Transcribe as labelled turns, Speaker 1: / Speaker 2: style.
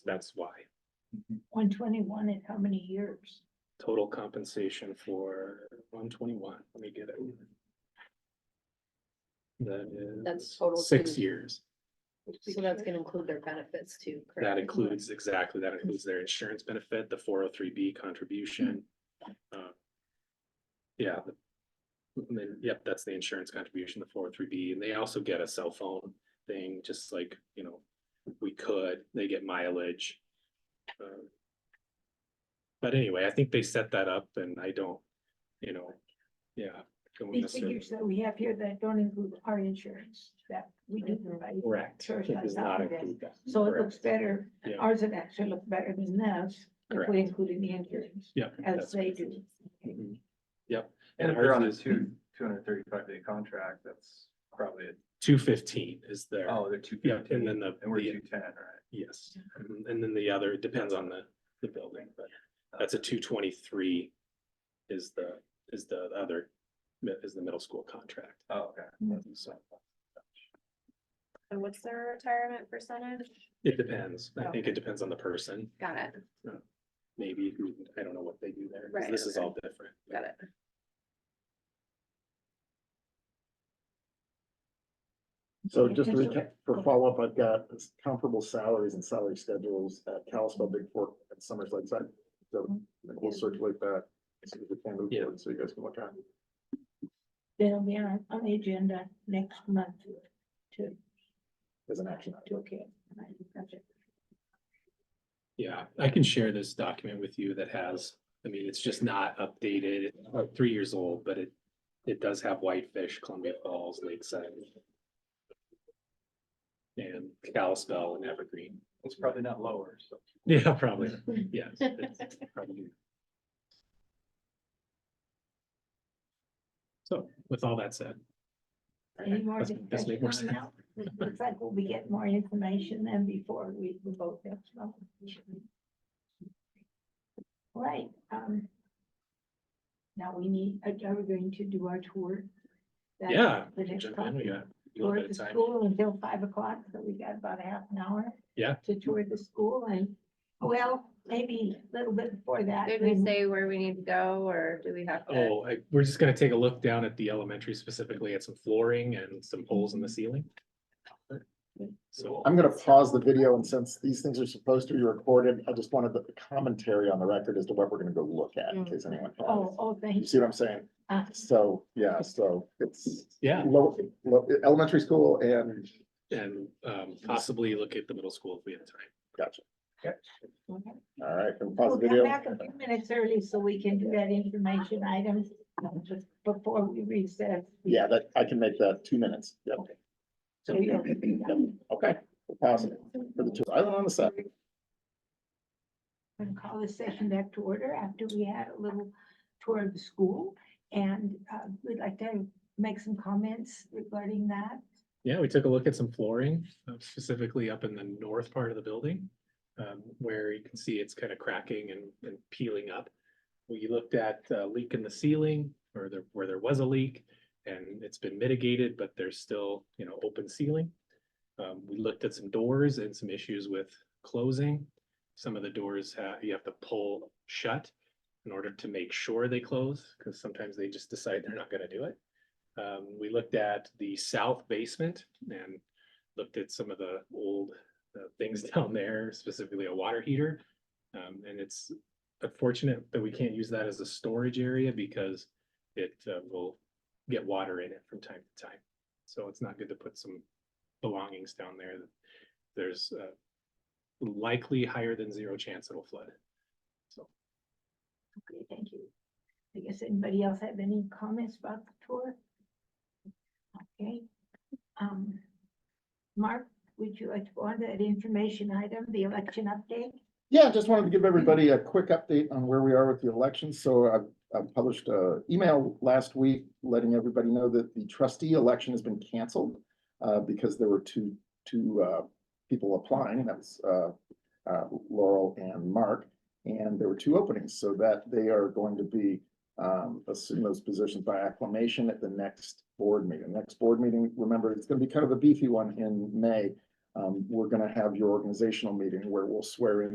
Speaker 1: That's why.
Speaker 2: One twenty-one in how many years?
Speaker 1: Total compensation for one twenty-one, let me get it. That
Speaker 3: That's
Speaker 1: is
Speaker 3: total
Speaker 1: six
Speaker 3: too.
Speaker 1: years.
Speaker 3: So that's gonna include their benefits too. correct?
Speaker 1: That includes, exactly, that includes their insurance benefit, the four oh three B contribution.
Speaker 2: Mm-hmm.
Speaker 1: uh, Yeah. the- And then, yep, that's the insurance contribution, the four oh three B, and they also get a cell phone thing, just like, you know, we could, they get mileage. uh, But anyway, I think they set that up and I don't, you know, yeah. don't
Speaker 2: The
Speaker 1: necessarily-
Speaker 2: figures that we have here that don't include our insurance that we do provide.
Speaker 1: Correct.
Speaker 2: Sure,
Speaker 1: It does
Speaker 2: that's
Speaker 1: not
Speaker 2: not correct.
Speaker 1: include that.
Speaker 2: So it
Speaker 1: Correct.
Speaker 2: looks better,
Speaker 1: Yeah.
Speaker 2: ours would actually look better than theirs, if
Speaker 1: Correct.
Speaker 2: we included the insurance,
Speaker 1: Yeah.
Speaker 2: as
Speaker 1: that's
Speaker 2: they
Speaker 1: correct.
Speaker 2: do.
Speaker 1: Mhm. Yep.
Speaker 4: And if they're on a
Speaker 1: ours is
Speaker 4: two, two hundred thirty-five day contract, that's probably, it.
Speaker 1: Two fifteen is their.
Speaker 4: oh, they're two
Speaker 1: Yeah, and
Speaker 4: fifteen,
Speaker 1: then the,
Speaker 4: and we're
Speaker 1: the-
Speaker 4: two ten, right?
Speaker 1: yes, Mhm. and then the other, it depends on the, the building, but that's a two twenty-three. Is the, is the other, mi- is the middle school contract,
Speaker 4: Oh, okay.
Speaker 1: so
Speaker 5: So what's their retirement percentage?
Speaker 1: it depends, I think it depends on the person,
Speaker 5: Got it,
Speaker 1: maybe, who- I don't know what they do there, 'cause
Speaker 5: Right,
Speaker 1: this is
Speaker 5: okay.
Speaker 1: all different. but-
Speaker 5: got it.
Speaker 6: So just to
Speaker 2: Okay, so-
Speaker 6: recap, for follow-up, I've got comparable salaries and salary schedules at Kalispell, Big Fork, and Summers Lakeside. So
Speaker 2: Mm-hmm.
Speaker 6: like, we'll circulate that as soon as we can move
Speaker 1: Yeah.
Speaker 6: forward, so you guys can look at. it.
Speaker 2: They'll be on, on the agenda next month to,
Speaker 6: As an action item.
Speaker 2: to, okay.
Speaker 1: Yeah, I can share this document with you that has, I mean, it's just not updated, it's about three years old, but it, it does have Whitefish, Columbia Falls, Lakeside. And Kalispell and Evergreen.
Speaker 4: It's probably not lower, so.
Speaker 1: Yeah, probably, yeah. it's probably. So with all that said.
Speaker 2: Any more
Speaker 1: Let's- let's make more
Speaker 2: discussion on
Speaker 1: sense.
Speaker 2: that? Looks like we'll be getting more information than before we we vote next month. Right, um. Now we need, are are we going to do our tour? That's
Speaker 1: Yeah,
Speaker 2: The next
Speaker 1: jump in, we got a little
Speaker 2: topic. Tour
Speaker 1: bit
Speaker 2: the
Speaker 1: of time.
Speaker 2: school until five o'clock, so we got about a half an hour.
Speaker 1: Yeah.
Speaker 2: To tour the school and, well, maybe a little bit before that.
Speaker 5: Did we
Speaker 3: Mm-hmm.
Speaker 2: then-
Speaker 5: say where we need to go or do we have to?
Speaker 1: Oh, I, we're just gonna take a look down at the elementary specifically at some flooring and some holes in the ceiling. So,
Speaker 6: I'm gonna pause the video, and since these things are supposed to be recorded, I just wanted the commentary on the record as to what we're gonna go look at, in case anyone
Speaker 2: Oh,
Speaker 6: has.
Speaker 2: oh,
Speaker 6: You
Speaker 2: thanks.
Speaker 6: see what I'm saying?
Speaker 2: Uh,
Speaker 6: So, yeah, so it's
Speaker 1: yeah,
Speaker 6: low, low, elementary school and,
Speaker 1: and um possibly look at the middle school if we have time.
Speaker 6: gotcha.
Speaker 2: okay.
Speaker 6: All right, and pause
Speaker 2: We'll
Speaker 6: the
Speaker 2: come
Speaker 6: video.
Speaker 2: back a few minutes early so we can do that information item um, just before we recess.
Speaker 6: Yeah, that, I can make that two minutes. Yep.
Speaker 2: So you'll be
Speaker 6: Yep. Okay, we'll pass it for the two, island on the side.
Speaker 2: And call the session back to order after we had a little tour of the school. And uh, we'd like to make some comments regarding that.
Speaker 1: Yeah, we took a look at some flooring, uh, specifically up in the north part of the building. Um, where you can see it's kind of cracking and, and peeling up. We looked at a leak in the ceiling or there, where there was a leak. And it's been mitigated, but there's still, you know, open ceiling. Um, we looked at some doors and some issues with closing. Some of the doors have, you have to pull shut in order to make sure they close, because sometimes they just decide they're not gonna do it. Um, we looked at the south basement and looked at some of the old uh, things down there, specifically a water heater. Um, and it's unfortunate that we can't use that as a storage area because it uh, will get water in it from time to time. So it's not good to put some belongings down there. There's uh, likely higher than zero chance it'll flood.
Speaker 2: Okay, thank you. I guess anybody else have any comments about the tour? Okay. Um, Mark, would you like to go on to that information item, the election update?
Speaker 6: Yeah, just wanted to give everybody a quick update on where we are with the election. So I've, I've published a email last week letting everybody know that the trustee election has been canceled uh, because there were two, two uh, people applying. That was uh, uh, Laurel and Mark. And there were two openings, so that they are going to be um, assume those positions by acclamation at the next board meeting. Next board meeting, remember, it's going to be kind of a beefy one in May. Um, we're gonna have your organizational meeting where we'll swear in